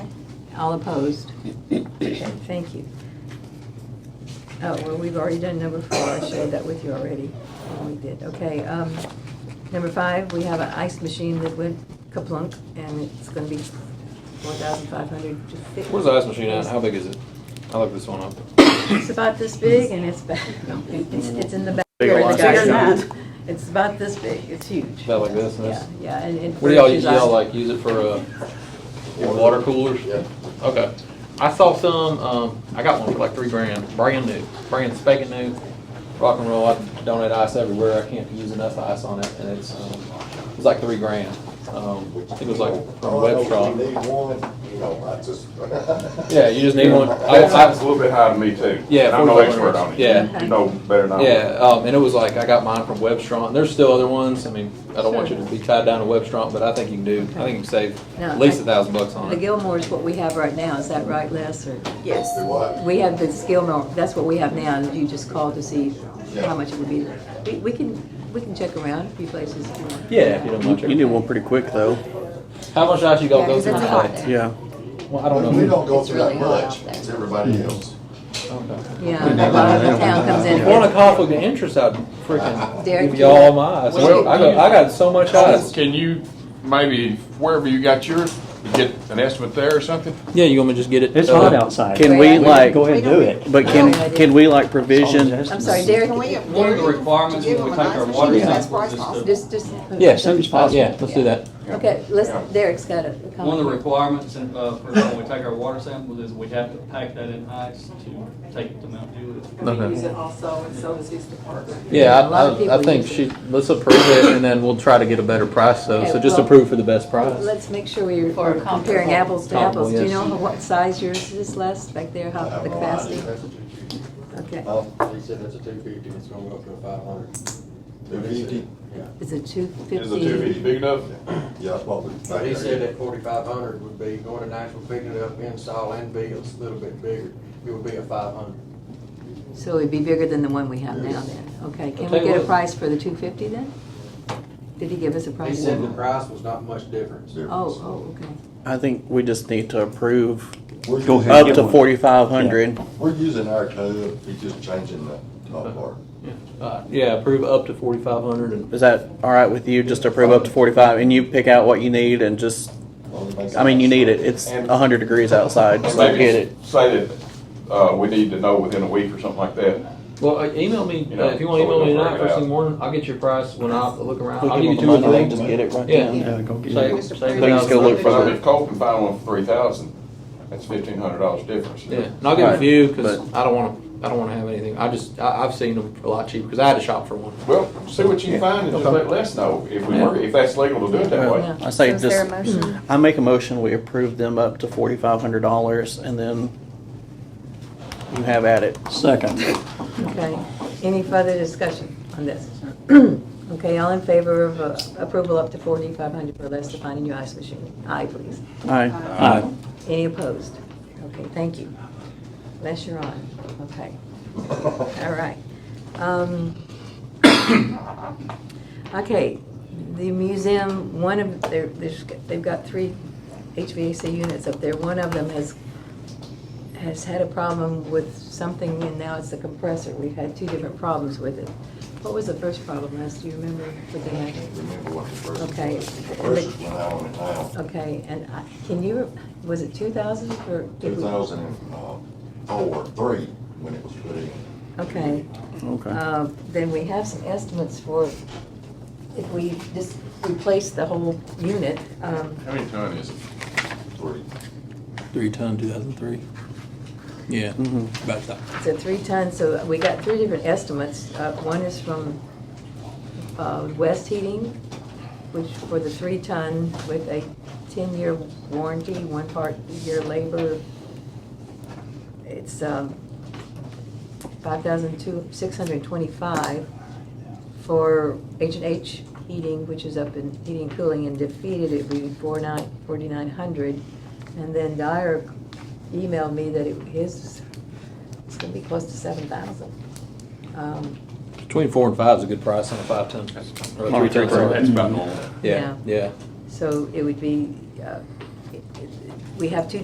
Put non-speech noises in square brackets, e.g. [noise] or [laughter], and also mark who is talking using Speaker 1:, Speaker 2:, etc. Speaker 1: All opposed? Okay, thank you. Oh, well, we've already done number four, I shared that with you already, Oh, we did, okay. um, Number five, we have an ice machine that went kaplunk, and it's gonna be four thousand five hundred to fix.
Speaker 2: Where's the ice machine at? How big is it? I looked this one up.
Speaker 1: It's about this big, and it's back, it's, it's in the back.
Speaker 2: Bigger
Speaker 1: It's
Speaker 2: than
Speaker 1: bigger
Speaker 2: that.
Speaker 1: than that. It's about this big, it's huge.
Speaker 2: About like this, and
Speaker 1: Yeah,
Speaker 2: this?
Speaker 1: yeah, and it.
Speaker 2: What do y'all,
Speaker 1: furnishes ice.
Speaker 2: y'all like, use it for, uh, your water coolers?
Speaker 3: Yeah.
Speaker 2: Okay. I saw some, um, I got one for like three grand, brand new, brand spanking new, rock and roll. I donate ice everywhere. I can't use enough ice on it, and it's, um, it was like three grand. Um, I think it was like from a
Speaker 3: Oh, I
Speaker 2: web
Speaker 3: know, if
Speaker 2: shop.
Speaker 3: you Need one, you know, I just.
Speaker 2: [laughs] Yeah, you just need one. I,
Speaker 4: That sounds a
Speaker 2: I,
Speaker 4: little bit high to me too.
Speaker 2: Yeah,
Speaker 4: And I'm no
Speaker 2: 4100.
Speaker 4: expert on it.
Speaker 2: Yeah.
Speaker 4: You know better than I do.
Speaker 2: yeah, um, and it was like, I got mine from Webstron. There's still other ones. I mean, I don't want you to be tied down to Webstron, but I think you can do, I think you can save
Speaker 1: No,
Speaker 2: at least
Speaker 1: I-
Speaker 2: a thousand bucks on
Speaker 1: The
Speaker 2: it.
Speaker 1: Gilmore is what we have right now, is that right, Les, or?
Speaker 3: Yes. Do what?
Speaker 1: We have the Gilmore, that's what we have now, and you just call to see how
Speaker 3: Yeah.
Speaker 1: much it would be. We, we can, we can check around a few places. if you want.
Speaker 2: Yeah, if you don't
Speaker 5: You
Speaker 2: mind.
Speaker 5: you did one pretty quick though.
Speaker 2: How much ice you
Speaker 6: Yeah,
Speaker 2: got go
Speaker 6: 'cause
Speaker 2: through
Speaker 6: it's hot
Speaker 2: today?
Speaker 6: there.
Speaker 5: Yeah.
Speaker 2: Well, I don't know.
Speaker 3: We don't go
Speaker 6: It's
Speaker 3: through that
Speaker 6: really hot
Speaker 3: much,
Speaker 6: out there.
Speaker 3: it's
Speaker 2: Hmm.
Speaker 3: everybody else.
Speaker 2: Okay.
Speaker 1: Yeah, a lot of the town comes in.
Speaker 2: One of conflict of interest, I'd freaking
Speaker 1: Derek,
Speaker 2: give y'all all my eyes.
Speaker 1: Well,
Speaker 2: I got, I got so much eyes.
Speaker 4: Can you, maybe wherever you got yours, get an estimate there or something?
Speaker 2: Yeah, you want me to just get it?
Speaker 7: It's
Speaker 2: uh,
Speaker 7: hot outside.
Speaker 5: Can we like,
Speaker 7: Go ahead and do it.
Speaker 5: but can, can we like provision,
Speaker 1: I'm sorry, Derek,
Speaker 6: Can we-
Speaker 8: One of the requirements
Speaker 6: Give
Speaker 8: when we
Speaker 6: them a
Speaker 8: take our
Speaker 6: nice
Speaker 8: water
Speaker 6: machine as
Speaker 8: sample
Speaker 6: far as
Speaker 8: is
Speaker 6: possible.
Speaker 1: just, just.
Speaker 2: Yeah,
Speaker 7: soon as possible.
Speaker 2: Yeah, let's do that.
Speaker 1: Okay, let's, Derek's got a comment.
Speaker 8: One of the requirements uh, for when we take our water samples is we have to pack that in ice to take it to Mount Dewey.
Speaker 9: And we use it also, and so does his department.
Speaker 1: A
Speaker 2: Yeah,
Speaker 1: lot of
Speaker 2: I, I, I
Speaker 1: people
Speaker 2: think
Speaker 1: use
Speaker 2: she, let's approve it and then we'll try to get a better price though.
Speaker 1: Okay,
Speaker 2: So just
Speaker 1: well-
Speaker 2: approve for the best price.
Speaker 1: Let's make sure we're
Speaker 9: For
Speaker 1: we're comparing
Speaker 9: comparable.
Speaker 1: apples to apples. Do you know
Speaker 2: Comparable,
Speaker 1: what size yours is, Les, back there,
Speaker 3: I
Speaker 1: how,
Speaker 3: have
Speaker 1: the
Speaker 3: no idea.
Speaker 1: capacity?
Speaker 3: That's a 250.
Speaker 1: Okay,
Speaker 3: Oh, they said that's a two fifty, it's gonna go up to five hundred. Two fifty? Yeah.
Speaker 1: is it two
Speaker 4: Is the two feet
Speaker 1: fifty?
Speaker 4: big enough?
Speaker 3: Yeah, that's what we.
Speaker 10: He said that forty-five hundred would be going to Nashville, picking it up, install and be a little bit bigger. It would be a five hundred.
Speaker 1: So it'd be bigger than the one we have now then. Okay, can we
Speaker 2: tell you
Speaker 1: get a
Speaker 2: what.
Speaker 1: price for the two fifty then? Did he give us a
Speaker 10: He
Speaker 1: price?
Speaker 10: said the price was not much difference.
Speaker 1: Oh, oh, okay.
Speaker 5: I think we just need to approve
Speaker 3: We're
Speaker 7: Go
Speaker 3: using-
Speaker 7: ahead.
Speaker 5: up to forty-five hundred.
Speaker 3: We're using our code, he's just changing the top part.
Speaker 2: Uh, Yeah, approve up to forty-five hundred and,
Speaker 5: Is that all right with you? Just approve up to forty-five and you pick out what you need and just,
Speaker 3: Only makes
Speaker 5: I mean, you
Speaker 3: sense.
Speaker 5: need it. It's a hundred degrees outside, so
Speaker 4: Maybe
Speaker 5: get it.
Speaker 4: Say that, uh, we need to know within a week or something like that.
Speaker 2: well, uh, email me,
Speaker 4: You
Speaker 2: uh,
Speaker 4: know,
Speaker 2: if you want to
Speaker 4: so we
Speaker 2: email me
Speaker 4: don't
Speaker 2: tonight
Speaker 4: break it
Speaker 2: first thing
Speaker 4: out.
Speaker 2: morning, I'll get your price when I look around. I'll
Speaker 5: We
Speaker 2: give you
Speaker 5: give them
Speaker 2: two
Speaker 5: the
Speaker 2: or
Speaker 5: money, they can
Speaker 2: three.
Speaker 5: just get it right
Speaker 2: Yeah.
Speaker 5: then.
Speaker 7: Yeah, go get it.
Speaker 2: Save,
Speaker 6: Mr.
Speaker 2: save
Speaker 6: They
Speaker 2: a
Speaker 6: can
Speaker 2: thousand
Speaker 5: still look
Speaker 2: bucks.
Speaker 5: for
Speaker 4: So
Speaker 5: it.
Speaker 4: if Cole can find one for three thousand, that's fifteen hundred dollars difference.
Speaker 2: Yeah, and I'll give a
Speaker 5: Right,
Speaker 2: few because
Speaker 5: but-
Speaker 2: I don't want to. I don't want to have anything. I just I, I've seen them a lot cheaper because I had to shop for one.
Speaker 4: Well, see what you find and just
Speaker 2: Okay.
Speaker 4: let Les know if we
Speaker 2: Yeah.
Speaker 4: were, if that's legal to do it that way.
Speaker 1: Yeah.
Speaker 5: I say
Speaker 6: So is there a
Speaker 5: just,
Speaker 6: motion?
Speaker 5: I make a motion, we approve them up to forty-five hundred dollars and then you have at it.
Speaker 7: Second.
Speaker 1: Okay, any further discussion on
Speaker 10: [clears throat]
Speaker 1: this? Okay, all in favor of uh, approval up to forty-five hundred for less to find a new ice machine? Aye, please.
Speaker 5: Aye.
Speaker 7: Aye.
Speaker 1: Any opposed? Okay, thank you. Les, you're on. Okay, all right. Um, [coughs] Okay, the museum, one of, they're- there's- they've got three HVAC units up there. One of them has, has had a problem with something, and now it's the compressor. We've had two different problems with it. What was the first problem, Les? Do you remember what they had?
Speaker 3: Remember what the first.
Speaker 1: Okay.
Speaker 3: First is when I went down,
Speaker 1: Okay, and I- can you, was it 2,000 for?
Speaker 3: two thousand and uh, four, three, when it was put in.
Speaker 1: Okay.
Speaker 5: Okay.
Speaker 1: Uh, Then we have some estimates for if we just replace the whole unit. um,
Speaker 4: How many ton is it?
Speaker 3: Three.
Speaker 2: Three ton, two thousand three. Yeah,
Speaker 5: Mm-hmm.
Speaker 2: about that.
Speaker 1: It's a three-ton, so we got three different estimates. Uh, One is from uh, West Heating, which for the three-ton with a 10-year warranty, one part year labor. It's um, 5,625 for H and H Heating, which is up in heating and cooling, and defeated it would be 4,900. And then Dyer emailed me that it, his it's gonna be close to seven thousand. Um,
Speaker 2: Between four and five is a good price on a five ton. Or a three ton.
Speaker 4: That's
Speaker 2: sorry.
Speaker 4: about normal.
Speaker 2: Yeah, yeah.
Speaker 1: So it would be, uh, it- it- we have two